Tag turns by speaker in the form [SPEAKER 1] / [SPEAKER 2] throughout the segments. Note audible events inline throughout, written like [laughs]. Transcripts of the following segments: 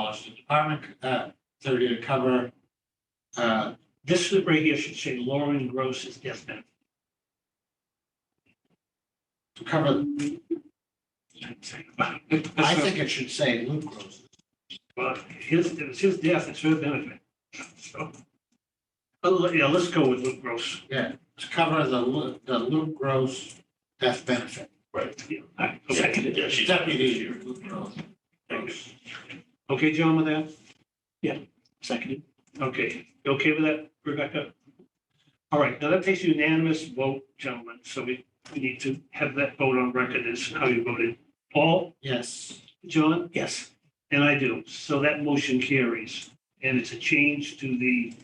[SPEAKER 1] across the department, uh, that are gonna cover. Uh, this is right here should say Lauren Gross's death benefit. To cover,
[SPEAKER 2] [laughs]
[SPEAKER 1] I think it should say Luke Gross. Well, his, it was his death, it's her benefit, so. Oh, yeah, let's go with Luke Gross. Yeah, to cover the Lu- the Luke Gross death benefit.
[SPEAKER 3] Right.
[SPEAKER 1] Yeah, all right, okay.
[SPEAKER 3] Yeah, she's
[SPEAKER 1] Deputy Luke Gross. Okay, John, with that? Yeah, seconded. Okay, you okay with that, Rebecca? All right, now that takes a unanimous vote, gentlemen, so we, we need to have that vote on record as how you voted. Paul? Yes. John? Yes. And I do, so that motion carries, and it's a change to the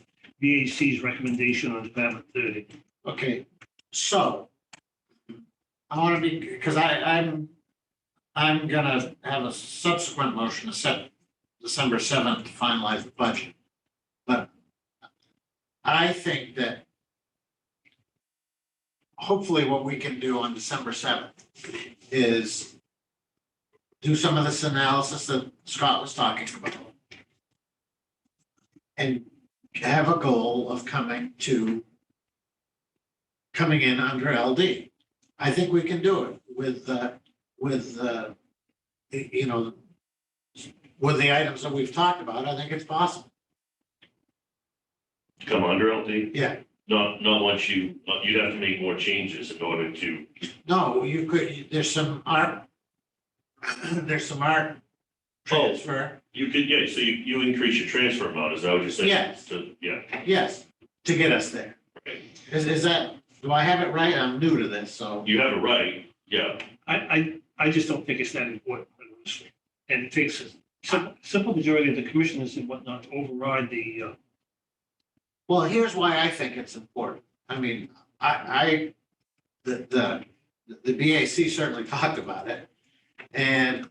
[SPEAKER 1] VAC's recommendation on Department thirty.
[SPEAKER 2] Okay, so. I want to be, because I, I'm, I'm gonna have a subsequent motion to set December seventh to finalize the budget. But I think that hopefully what we can do on December seventh is do some of this analysis that Scott was talking about. And have a goal of coming to coming in under LD. I think we can do it with, uh, with, uh, y- you know, with the items that we've talked about, I think it's possible.
[SPEAKER 3] to come under LD,
[SPEAKER 2] Yeah,
[SPEAKER 3] not, not once you, uh, you'd have to make more changes in order to,
[SPEAKER 2] no, you could, there's some art, [clears throat] there's some art transfer,
[SPEAKER 3] you could, yeah, so you, you increase your transfer amount, is that what you're saying?
[SPEAKER 2] Yes.
[SPEAKER 3] To- Yeah,
[SPEAKER 2] yes, to get us there.
[SPEAKER 3] Okay.
[SPEAKER 2] Is, is that, do I have it right? I'm new to this, so,
[SPEAKER 3] you have it right, yeah,
[SPEAKER 1] I, I, I just don't think it's that important, honestly. And it takes a sim- simple majority of the commissioners and whatnot to override the, uh,
[SPEAKER 2] well, here's why I think it's important. I mean, I, I, the, the, the BAC certainly [laughs] talked about it. And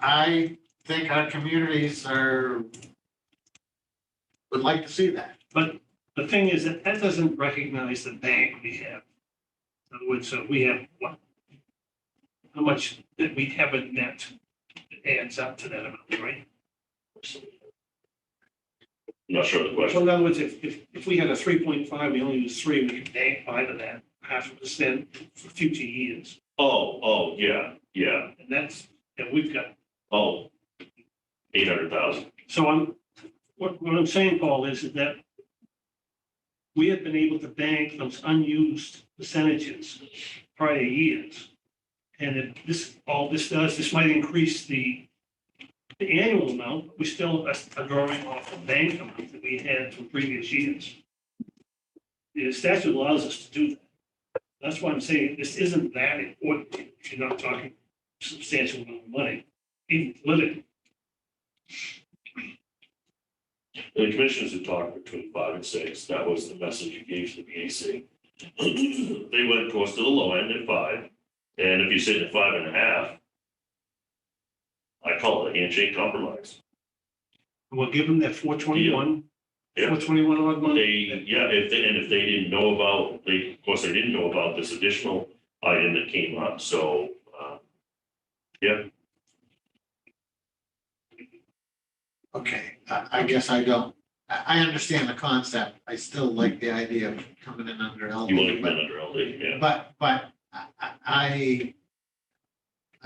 [SPEAKER 2] I think our communities are, would like to see that.
[SPEAKER 1] the thing is that that doesn't recognize the bank we have. In other words, so we have what? How much that we have in net adds up to that amount, right?
[SPEAKER 3] I'm not sure of the
[SPEAKER 1] So
[SPEAKER 3] question.
[SPEAKER 1] in other words, if, if, if we had a three point five, we only use three, we could bank five of that, half a percent for future years.
[SPEAKER 3] Oh, oh, yeah, yeah,
[SPEAKER 1] And that's, and we've got
[SPEAKER 3] oh, eight hundred thousand,
[SPEAKER 1] So I'm, what, what I'm saying, Paul, is that we have been able to bank those unused percentages prior years. And if this, all this does, this might increase the, the annual amount, but we still are are drawing off the bank amount that we had from previous years. The statute allows us to do that. That's why I'm saying this isn't that important if you're not talking substantial amount of money, even politically.
[SPEAKER 3] the commissioners had talked between five and six, that was the message you gave to the BAC. [clears throat] They went, of course, to the low end at five, and if you sit at five and a half, I call it a handshake compromise.
[SPEAKER 1] We'll give them that four twenty-one,
[SPEAKER 3] Yeah.
[SPEAKER 1] four twenty-one odd money.
[SPEAKER 3] They, yeah, if they, and if they didn't know about, they, of course, they didn't know about this additional item that came up, so, uh,
[SPEAKER 2] Okay, I, I guess I don't, I, I understand the concept. I still like the idea of coming in under
[SPEAKER 3] you want
[SPEAKER 2] LD,
[SPEAKER 3] to come in
[SPEAKER 2] but,
[SPEAKER 3] under LD, yeah.
[SPEAKER 2] but, but I, I,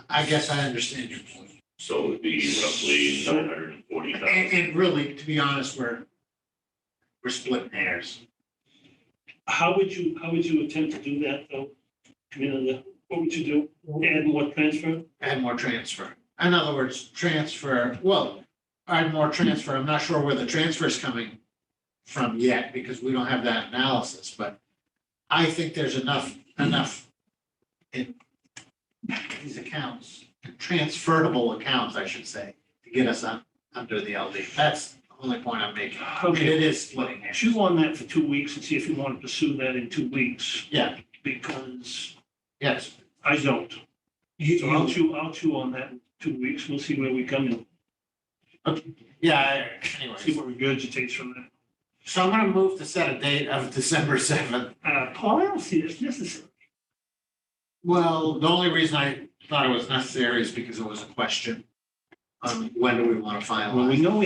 [SPEAKER 2] I guess I understand your point.
[SPEAKER 3] So it'd be roughly nine hundred and forty
[SPEAKER 2] And,
[SPEAKER 3] thousand.
[SPEAKER 2] and really, to be honest, we're, we're splitting hairs.
[SPEAKER 1] How would you, how would you attempt to do that though? Come in on the, what would you do? Add more transfer?
[SPEAKER 2] add more transfer. In other words, transfer, well, add more transfer. I'm not sure where the transfer is coming from yet because we don't have that analysis, but I think there's enough, enough in these accounts, transferable accounts, I should say, to get us un- under the LD. That's the only point I'm making. I mean,
[SPEAKER 1] Okay,
[SPEAKER 2] It is splitting hairs.
[SPEAKER 1] chew on that for two weeks and see if you want to pursue that in two weeks.
[SPEAKER 2] Yeah.
[SPEAKER 1] Because
[SPEAKER 2] Yes.
[SPEAKER 1] I don't.
[SPEAKER 2] You-
[SPEAKER 1] So I'll chew, I'll chew on that in two weeks. We'll see where we come and
[SPEAKER 2] Yeah,
[SPEAKER 1] see
[SPEAKER 2] anyways.
[SPEAKER 1] what regurgitates from that.
[SPEAKER 2] So I'm gonna move to set a date of [laughs] December seventh
[SPEAKER 1] Uh, Paul, I don't see this necessary.
[SPEAKER 2] Well, the only reason I thought it was necessary is because it was a question on when do we want to
[SPEAKER 1] Well,
[SPEAKER 2] finalize.
[SPEAKER 1] we know